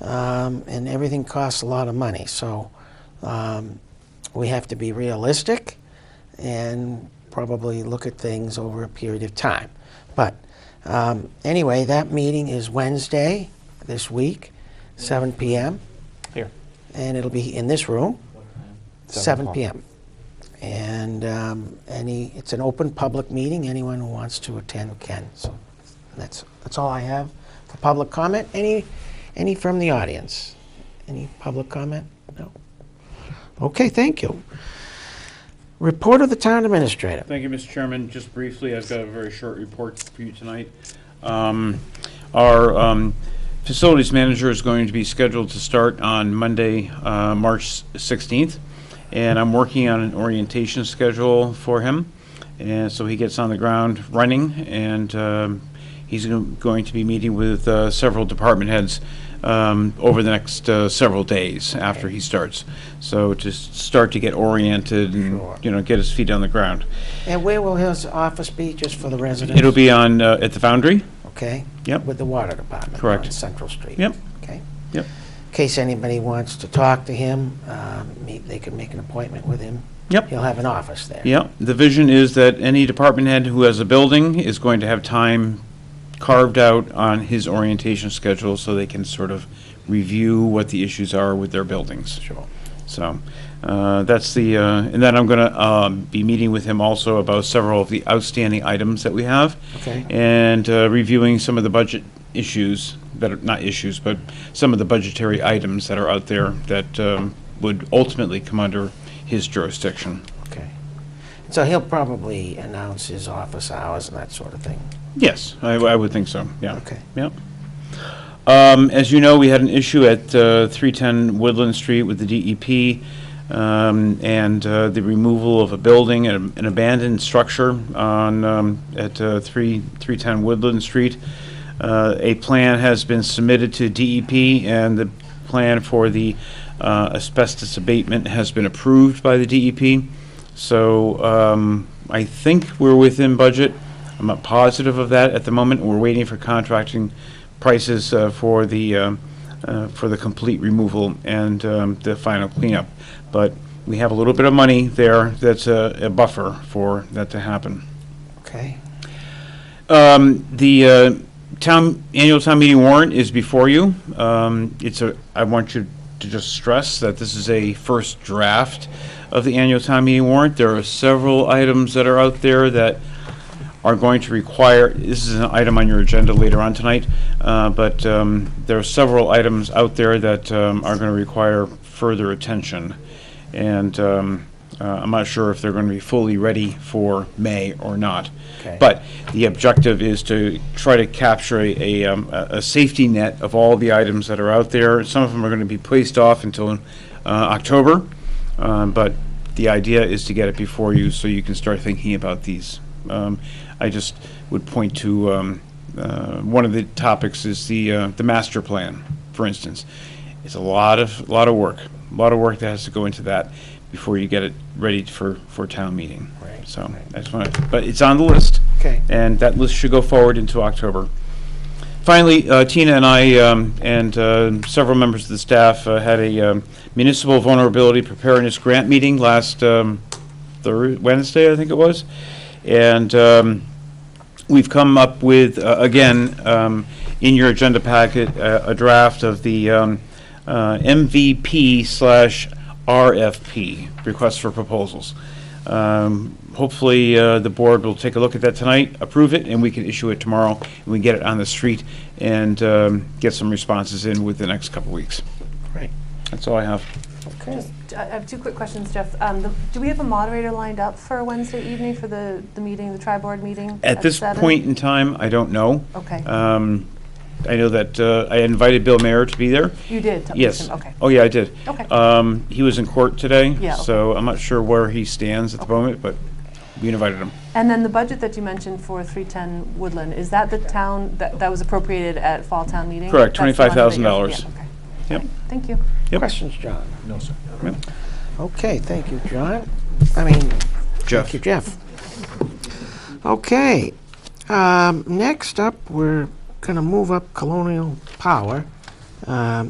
um, and everything costs a lot of money. So um, we have to be realistic and probably look at things over a period of time. But um, anyway, that meeting is Wednesday this week, 7 p.m., Here. and it'll be in this room, 7 o'clock. p.m. And um, any, it's an open public meeting. Anyone who wants to attend can. So that's that's all I have for public comment. Any any from the audience? Any public comment? No. Okay, thank you. Report of the town administrator. Thank you, Mr. Chairman. Just briefly, I've got a very short report for you tonight. Um, Our um, facilities manager is going to be scheduled to start on Monday, uh, March 16th, and I'm working on an orientation schedule for him, and so he gets on the ground running, and um, he's go- going to be meeting with uh, several department heads um, over the next uh, several days after he starts. So just start to get oriented and, Sure. you know, get his feet on the ground. And where will his office be, just for the residents? It'll be on, uh, at the Foundry? Okay? Yep. With the water department? Correct. On Central Street? Yep. Okay? Yep. In case anybody wants to talk to him, um, he- they could make an appointment with him. Yep. He'll have an office there. Yep. The vision is that any department head who has a building is going to have time carved out on his orientation schedule so they can sort of review what the issues are with their buildings. Sure. So, uh, that's the, uh, and then I'm gonna, um, be meeting with him also about several of the outstanding items that we have. Okay. And, uh, reviewing some of the budget issues that are, not issues, but some of the budgetary items that are out there that, um, would ultimately come under his jurisdiction. Okay. So he'll probably announce his office hours and that sort of thing. Yes, I, I would think so, yeah. Okay. Yep. Um, as you know, we had an issue at, uh, three ten Woodland Street with the DEP, um, and, uh, the removal of a building, an an abandoned structure on, um, at, uh, three, three ten Woodland Street. Uh, a plan has been submitted to DEP, and the plan for the, uh, asbestos abatement has been approved by the DEP. So, um, I think we're within budget. I'm not positive of that at the moment. We're waiting for contracting prices uh, for the, um, uh, for the complete removal and um, the final cleanup. But we have a little bit of money there that's a a buffer for that to happen. Okay? Um, The uh, town, annual town meeting warrant is before you. Um, It's a, I want you to just stress that this is a first draft of the annual town meeting warrant. There are several items that are out there that are going to require, this is an item on your agenda later on tonight, uh, but um, there are several items out there that um, are going to require further attention. And um, uh, I'm not sure if they're going to be fully ready for May or not. Okay. But the objective is to try to capture a, a, um, a a safety net of all the items that are out there. Some of them are going to be placed off until uh, October, um, but the idea is to get it before you so you can start thinking about these. Um, I just would point to, um, uh, one of the topics is the, uh, the master plan, for instance. It's a lot of, lot of work, a lot of work that has to go into that before you get it ready for, for town meeting. Right, So, right. I just want to, but it's on the list. Okay. And that list should go forward into October. Finally, uh, Tina and I, um, and uh, several members of the staff, uh, had a um, municipal vulnerability preparedness grant meeting last um, Thurs Wednesday, I think it was. And um, we've come up with, uh, again, um, in your agenda packet, uh, a draft of the um, uh, MVP slash RFP, request for proposals. Um, Hopefully, uh, the board will take a look at that tonight, approve it, and we can issue it tomorrow, and we get it on the street and um, get some responses in with the next couple weeks. Right. That's all I have. Okay. I I have two quick questions, Jeff. Um, the- Do we have a moderator lined up for Wednesday evening for the, the meeting, the tri-board meeting? At this seven? point in time, I don't know. Okay, Um, I know that uh, I invited Bill Mayer to be there. you did? tell- Yes. Okay. Oh, yeah, I did. Okay. Um, He was in court today. Yeah, okay. So I'm not sure where he stands at the moment, but we invited him. And then the budget that you mentioned for 310 Woodland, is that the town, that, that was appropriated at fall town meeting? Correct, That's the one that $25,000. you're- yeah, okay. Yep. Thank you. Yep. Questions, John? No, sir. Okay, thank you, John. I mean, Jeff. thank you, Jeff. Okay, um, next up, we're going to move up Colonial Power. Um,